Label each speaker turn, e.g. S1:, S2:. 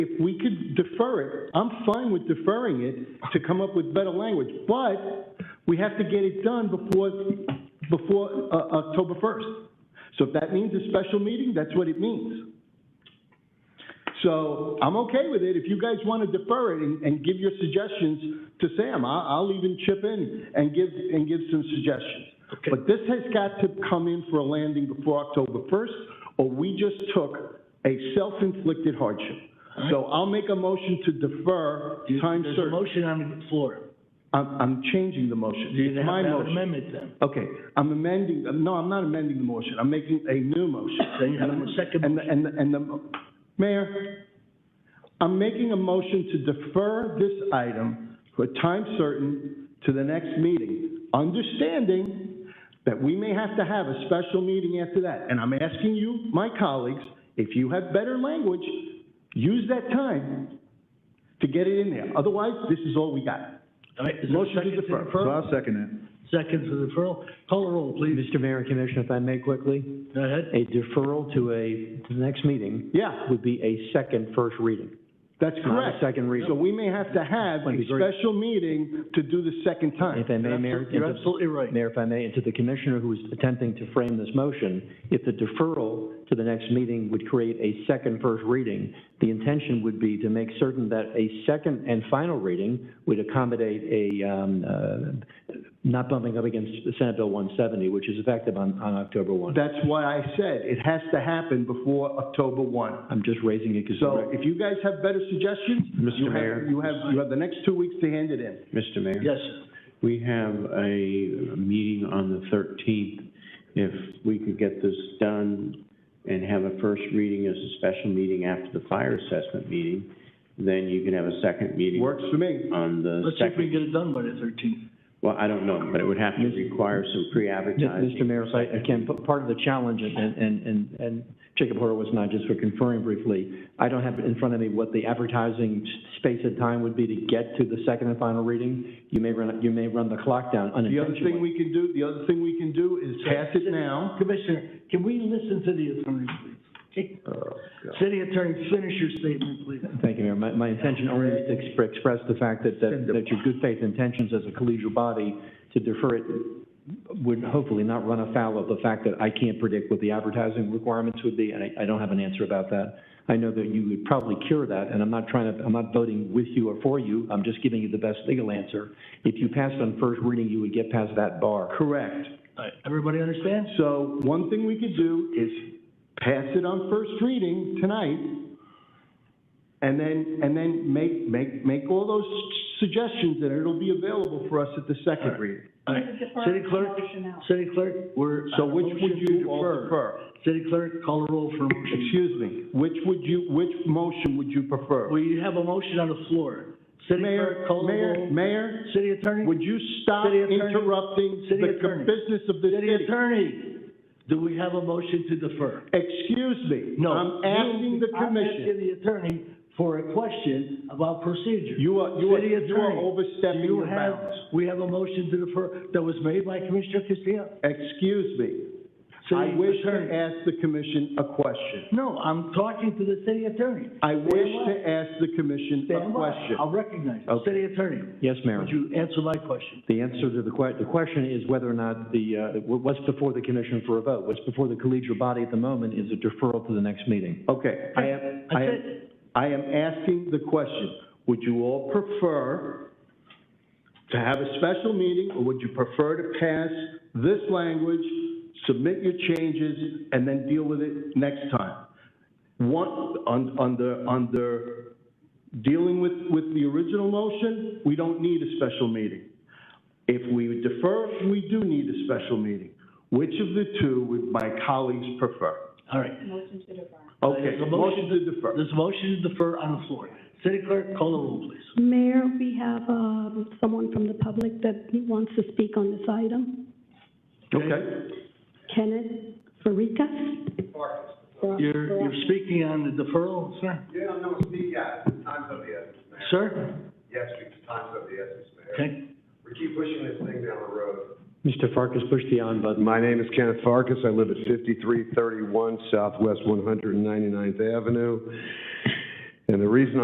S1: if we could defer it, I'm fine with deferring it to come up with better language, but we have to get it done before, before, uh, October first. So if that means a special meeting, that's what it means. So I'm okay with it. If you guys want to defer it and, and give your suggestions to Sam, I, I'll even chip in and give, and give some suggestions. But this has got to come in for a landing before October 1st, or we just took a self-inflicted hardship. So I'll make a motion to defer
S2: You-
S1: time
S2: There's a
S1: certain.
S2: motion on the floor.
S1: I'm, I'm changing the motion.
S2: You
S1: It's
S2: have
S1: my
S2: to have an
S1: motion.
S2: amendment then.
S1: Okay, I'm amending, no, I'm not amending the motion. I'm making a new motion.
S2: Then you have a second
S1: And,
S2: motion.
S1: the- and, the- and the, Mayor, I'm making a motion to defer this item for a time certain to the next meeting, understanding that we may have to have a special meeting after that. And I'm asking you, my colleagues, if you have better language, use that time to get it in there. Otherwise, this is all we got.
S2: All right, is there a
S1: Motion
S2: second
S1: to defer.
S3: So I'll second
S2: Second for the deferral. Call a roll, please.
S4: Mr. Mayor, Commissioner, if I may quickly,
S2: Go ahead.
S4: a deferral to a, to the next meeting
S1: Yeah,
S4: would be a second first reading.
S1: that's
S4: not a
S1: correct.
S4: second reading.
S1: So we may have to have a
S4: That'd be great.
S1: special meeting to do the second time.
S4: If I may, Mayor.
S2: You're
S4: and to-
S2: absolutely right.
S4: Mayor, if I may, and to the commissioner who is attempting to frame this motion, if the deferral to the next meeting would create a second first reading, the intention would be to make certain that a second and final reading would accommodate a, um, uh, not bumping up against Senate Bill 170, which is effective on, on October 1.
S1: That's why I said it has to happen before October 1.
S4: I'm just raising it because.
S1: So if you guys have better suggestions,
S3: Mr.
S1: you have,
S3: Mayor.
S1: you have, you have the next two weeks to hand it in.
S3: it. Mr. Mayor?
S2: Yes, sir.
S3: We have a meeting on the thirteenth. If we could get this done and have a first reading as a special meeting after the fire assessment meeting, then you can have a second meeting
S1: Works for me.
S3: on the
S2: Let's see if we can
S3: second.
S2: get it done by the thirteenth.
S3: Well, I don't know, but it would have to require some
S4: Yeah,
S3: pre-advertising.
S4: Mr. Mayor, if I I can, p- part of the challenge, and, and, and- and Jacob Horowitz and I just were conferring briefly, I don't have in front of me what the advertising s- space and time would be to get to the second and final reading. You may run, you may run the clock down
S1: The other thing
S4: unintentionally.
S1: we can do, the other thing we can do is pass it now.
S2: Commissioner, can we listen to the attorney, please?
S1: Oh,
S2: Okay. City attorney, finish your statement, please.
S4: Thank you, Mayor. My, my intention only is to expre- express the fact that, that, that your good faith intentions as a collegial body to defer it would hopefully not run afoul of the fact that I can't predict what the advertising requirements would be, and I, I don't have an answer about that. I know that you would probably cure that, and I'm not trying to, I'm not voting with you or for you, I'm just giving you the best legal answer. If you passed on first reading, you would get past that bar.
S1: Correct.
S2: All right, everybody understands?
S1: So one thing we could do is pass it on first reading tonight, and then, and then make, make, make all those suggestions, and it'll be available for us at the second reading.
S2: All right, city clerk, city clerk, we're.
S1: So
S2: on a
S1: which would
S2: motion to
S1: you all prefer?
S2: City clerk, call a roll for a motion.
S1: Excuse me, which would you, which motion would you prefer?
S2: We have a motion on the floor. City
S1: Mayor,
S2: clerk, call a
S1: Mayor,
S2: roll.
S1: Mayor,
S2: City attorney?
S1: would you stop
S2: City attorney.
S1: interrupting
S2: City
S1: the
S2: attorney.
S1: business of the
S2: City
S1: city?
S2: attorney, do we have a motion to defer?
S1: Excuse me.
S2: No.
S1: I'm asking the
S2: I'm
S1: commission.
S2: asking the attorney for a question about procedure.
S1: You are, you are,
S2: City
S1: you are
S2: attorney,
S1: overstepping
S2: You
S1: your
S2: have,
S1: bounds.
S2: we have a motion to defer that was made by Commissioner Castillo.
S1: Excuse me. I
S2: City
S1: wish to
S2: attorney.
S1: ask the commission a question.
S2: No, I'm talking to the city attorney.
S1: I wish
S2: by.
S1: to ask the commission a
S2: Stand by.
S1: question.
S2: I'll recognize you.
S4: Okay.
S2: City attorney,
S4: Yes, Mayor?
S2: would you answer my question?
S4: The answer to the que, the question is whether or not the, uh, wh- what's before the commission for a vote? What's before the collegial body at the moment is a deferral to the next meeting.
S1: Okay, I am, I
S2: That's
S1: am,
S2: it.
S1: I am asking the question, would you all prefer to have a special meeting, or would you prefer to pass this language, submit your changes, and then deal with it next time? One, on, under, under dealing with, with the original motion, we don't need a special meeting. If we defer, we do need a special meeting. Which of the two would my colleagues prefer?
S2: All right.
S5: Motion to defer.
S1: Okay,
S2: There's a
S1: motion to defer.
S2: There's a motion to defer on the floor. City clerk, call the roll, please.
S6: Mayor, we have um, someone from the public that wants to speak on this item.
S1: Okay.
S6: Kenneth Farica?
S2: You're, you're speaking on the deferral, sir?
S7: Yeah, no, no, speak, yeah, time's of the essence, man.
S2: Sir?
S7: Yes, we- time's of the essence, man.
S2: Okay.
S7: We keep pushing this thing down the road.
S4: Mr. Farkas, push the on button.
S8: My name is Kenneth Farkas. I live at 5331 Southwest 199th Avenue.
S4: And the reason